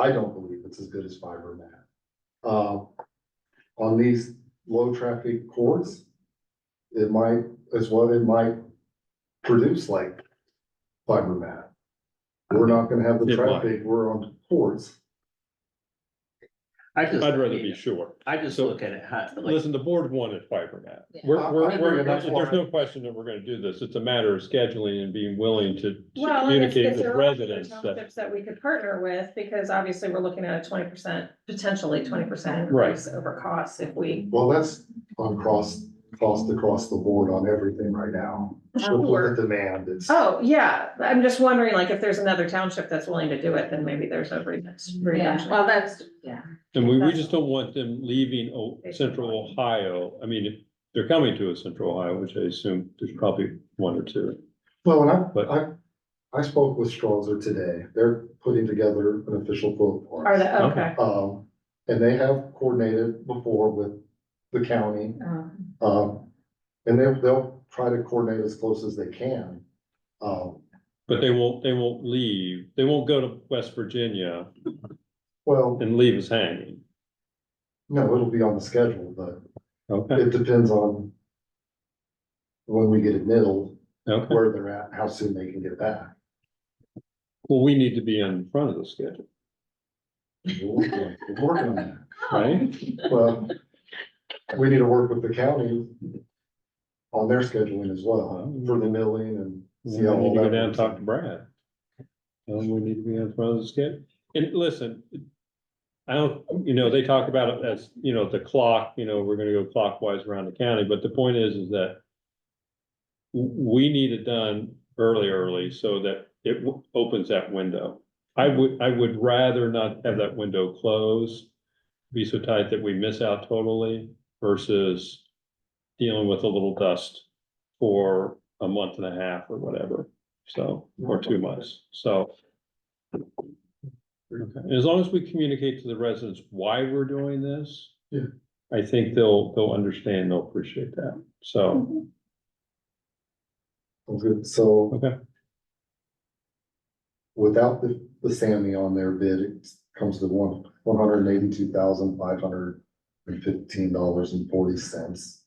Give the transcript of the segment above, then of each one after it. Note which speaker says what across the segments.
Speaker 1: I don't believe it's as good as fiber mat. Uh, on these low traffic courts, it might, is what it might produce like fiber mat. We're not gonna have the
Speaker 2: It might.
Speaker 1: traffic, we're on courts.
Speaker 3: I just,
Speaker 2: I'd rather be sure.
Speaker 3: I just
Speaker 2: so-
Speaker 3: look at it, how, like,
Speaker 2: Listen, the board wanted fiber net.
Speaker 4: Yeah.
Speaker 2: We're,
Speaker 1: I- I
Speaker 2: we're,
Speaker 1: agree,
Speaker 2: we're,
Speaker 1: and that's
Speaker 2: there's
Speaker 1: why-
Speaker 2: no question that we're gonna do this. It's a matter of scheduling and being willing to to
Speaker 5: Well, and it's-
Speaker 2: communicate
Speaker 5: it's
Speaker 2: with
Speaker 5: there are
Speaker 2: residents that,
Speaker 5: Townships that we could partner with, because obviously we're looking at a twenty percent, potentially twenty percent
Speaker 2: Right.
Speaker 5: increase over costs if we.
Speaker 1: Well, that's on cross, cost across the board on everything right now. Look
Speaker 5: Sure.
Speaker 1: at the demand, it's,
Speaker 5: Oh, yeah, I'm just wondering, like, if there's another township that's willing to do it, then maybe there's a reason.
Speaker 4: Yeah, well, that's, yeah.
Speaker 2: and we, we just don't want them leaving O- central Ohio. I mean, if they're coming to us central Ohio, which I assume there's probably one or two.
Speaker 1: well,
Speaker 2: But-
Speaker 1: and I, I, I spoke with Strauzer today, they're putting together an official quote for us.
Speaker 5: Are the, okay,
Speaker 1: Um, and they have coordinated before with the county,
Speaker 4: um,
Speaker 1: um, and they'll, they'll try to coordinate as close as they can. Um,
Speaker 2: But they won't, they won't leave. They won't go to West Virginia
Speaker 1: well,
Speaker 2: and leave us hanging.
Speaker 1: no, it'll be on the schedule, but
Speaker 2: Okay,
Speaker 1: it depends on when we get it middled,
Speaker 2: okay.
Speaker 1: where they're at, how soon they can get back.
Speaker 2: Well, we need to be in front of the schedule,
Speaker 1: We're working we're working on
Speaker 2: right?
Speaker 1: that. Well, we need to work with the county on their scheduling as well, for the milling and.
Speaker 2: We
Speaker 1: see
Speaker 2: need
Speaker 1: how
Speaker 2: to
Speaker 1: all
Speaker 2: go
Speaker 1: that
Speaker 2: down and
Speaker 1: works
Speaker 2: talk
Speaker 1: out.
Speaker 2: to Brad. Tell him we need to be on front of the schedule. And listen, I don't, you know, they talk about it as, you know, the clock, you know, we're gonna go clockwise around the county, but the point is, is that w- we need it done early, early, so that it w- opens that window. I would, I would rather not have that window closed, be so tight that we miss out totally versus dealing with a little dust for a month and a half or whatever, so, or two months, so. Okay, and as long as we communicate to the residents why we're doing this.
Speaker 1: Yeah.
Speaker 2: I think they'll, they'll understand, they'll appreciate that, so,
Speaker 1: Sounds good, so.
Speaker 2: Okay.
Speaker 1: Without the, the Sammy on their bid, it comes to one, one hundred and eighty-two thousand, five hundred and fifteen dollars and forty cents.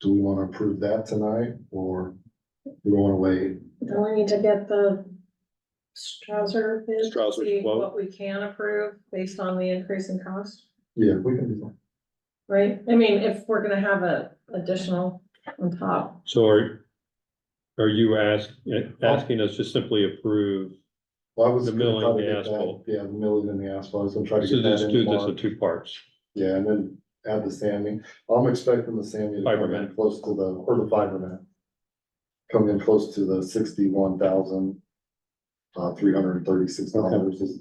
Speaker 1: Do we wanna approve that tonight, or do we wanna wait?
Speaker 5: then we need to get the Strauser bid,
Speaker 2: Strausser's
Speaker 5: see
Speaker 2: quote.
Speaker 5: what we can approve based on the increase in cost,
Speaker 1: Yeah, we can do
Speaker 5: right? I mean, if we're gonna have a additional on top.
Speaker 2: so are. Are you ask, eh, asking us to simply approve,
Speaker 1: that. I was
Speaker 2: The
Speaker 1: gonna
Speaker 2: milling,
Speaker 1: try to
Speaker 2: the
Speaker 1: get that-
Speaker 2: asphalt.
Speaker 1: Yeah, the milling and the asphalt, I was gonna try to
Speaker 2: so
Speaker 1: get that
Speaker 2: just
Speaker 1: in
Speaker 2: do this in
Speaker 1: March,
Speaker 2: two parts,
Speaker 1: yeah, and then add the Sammy, I'm expecting the Sammy to come in
Speaker 2: Fiberman.
Speaker 1: close to the, or the fiber net. Come in close to the sixty-one thousand, uh, three hundred and thirty-six dollars is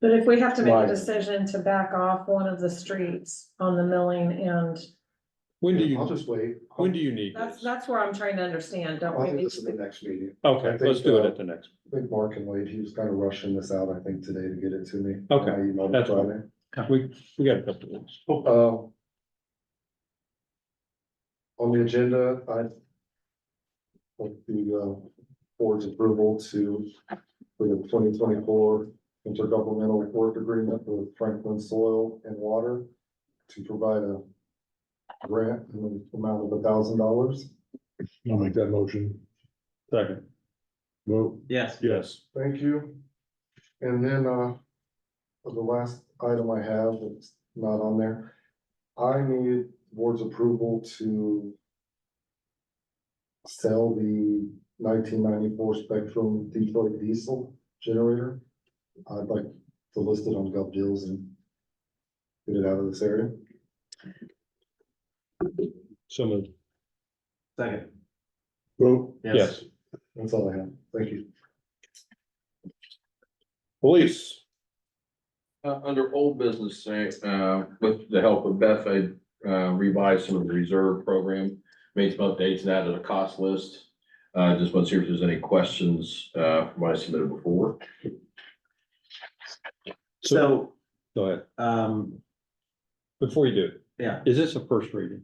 Speaker 5: But if we have to make
Speaker 1: Right.
Speaker 5: a decision to back off one of the streets on the milling and
Speaker 2: when do
Speaker 1: I'll
Speaker 2: you,
Speaker 1: just wait.
Speaker 2: when do you need
Speaker 5: that's,
Speaker 2: this?
Speaker 5: that's where I'm trying to understand, don't
Speaker 1: I
Speaker 5: we?
Speaker 1: think
Speaker 5: need
Speaker 1: this is the
Speaker 5: to-
Speaker 1: next meeting. I
Speaker 2: Okay,
Speaker 1: think,
Speaker 2: let's do it
Speaker 1: uh,
Speaker 2: at the next,
Speaker 1: I think Mark and Wade, he was kind of rushing this out, I think, today to get it to me.
Speaker 2: Okay,
Speaker 1: I emailed him
Speaker 2: that's fine.
Speaker 1: Friday.
Speaker 2: we, we got a couple of weeks.
Speaker 6: Oh, uh,
Speaker 1: Um, On the agenda, I with the uh, board's approval to, for the twenty twenty-four intergovernmental work agreement with Franklin Soil and Water to provide a grant in the amount of a thousand dollars.
Speaker 6: I'll make that motion.
Speaker 2: Second,
Speaker 6: Vote.
Speaker 3: yes,
Speaker 2: yes.
Speaker 1: Thank you. And then, uh, the last item I have that's not on there, I need board's approval to sell the nineteen ninety-four Spectrum Detroit diesel generator. I'd like to list it on Gov Deals and get it out of this area.
Speaker 2: So moved.
Speaker 3: second,
Speaker 6: Vote.
Speaker 3: yes.
Speaker 2: Yes.
Speaker 1: That's all I have. Thank you.
Speaker 7: Police. Uh, under old business, uh, with the help of Beth, I uh, revised some of the reserve program, made some updates and added a cost list. Uh, just want to see if there's any questions, uh, from what I submitted before.
Speaker 3: So,
Speaker 2: Go ahead,
Speaker 3: um,
Speaker 2: before you do,
Speaker 3: yeah,
Speaker 2: is this a first reading?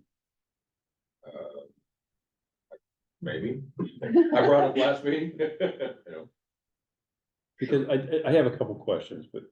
Speaker 7: Maybe. I brought it last meeting. You know,
Speaker 2: Because I, I have a couple questions, but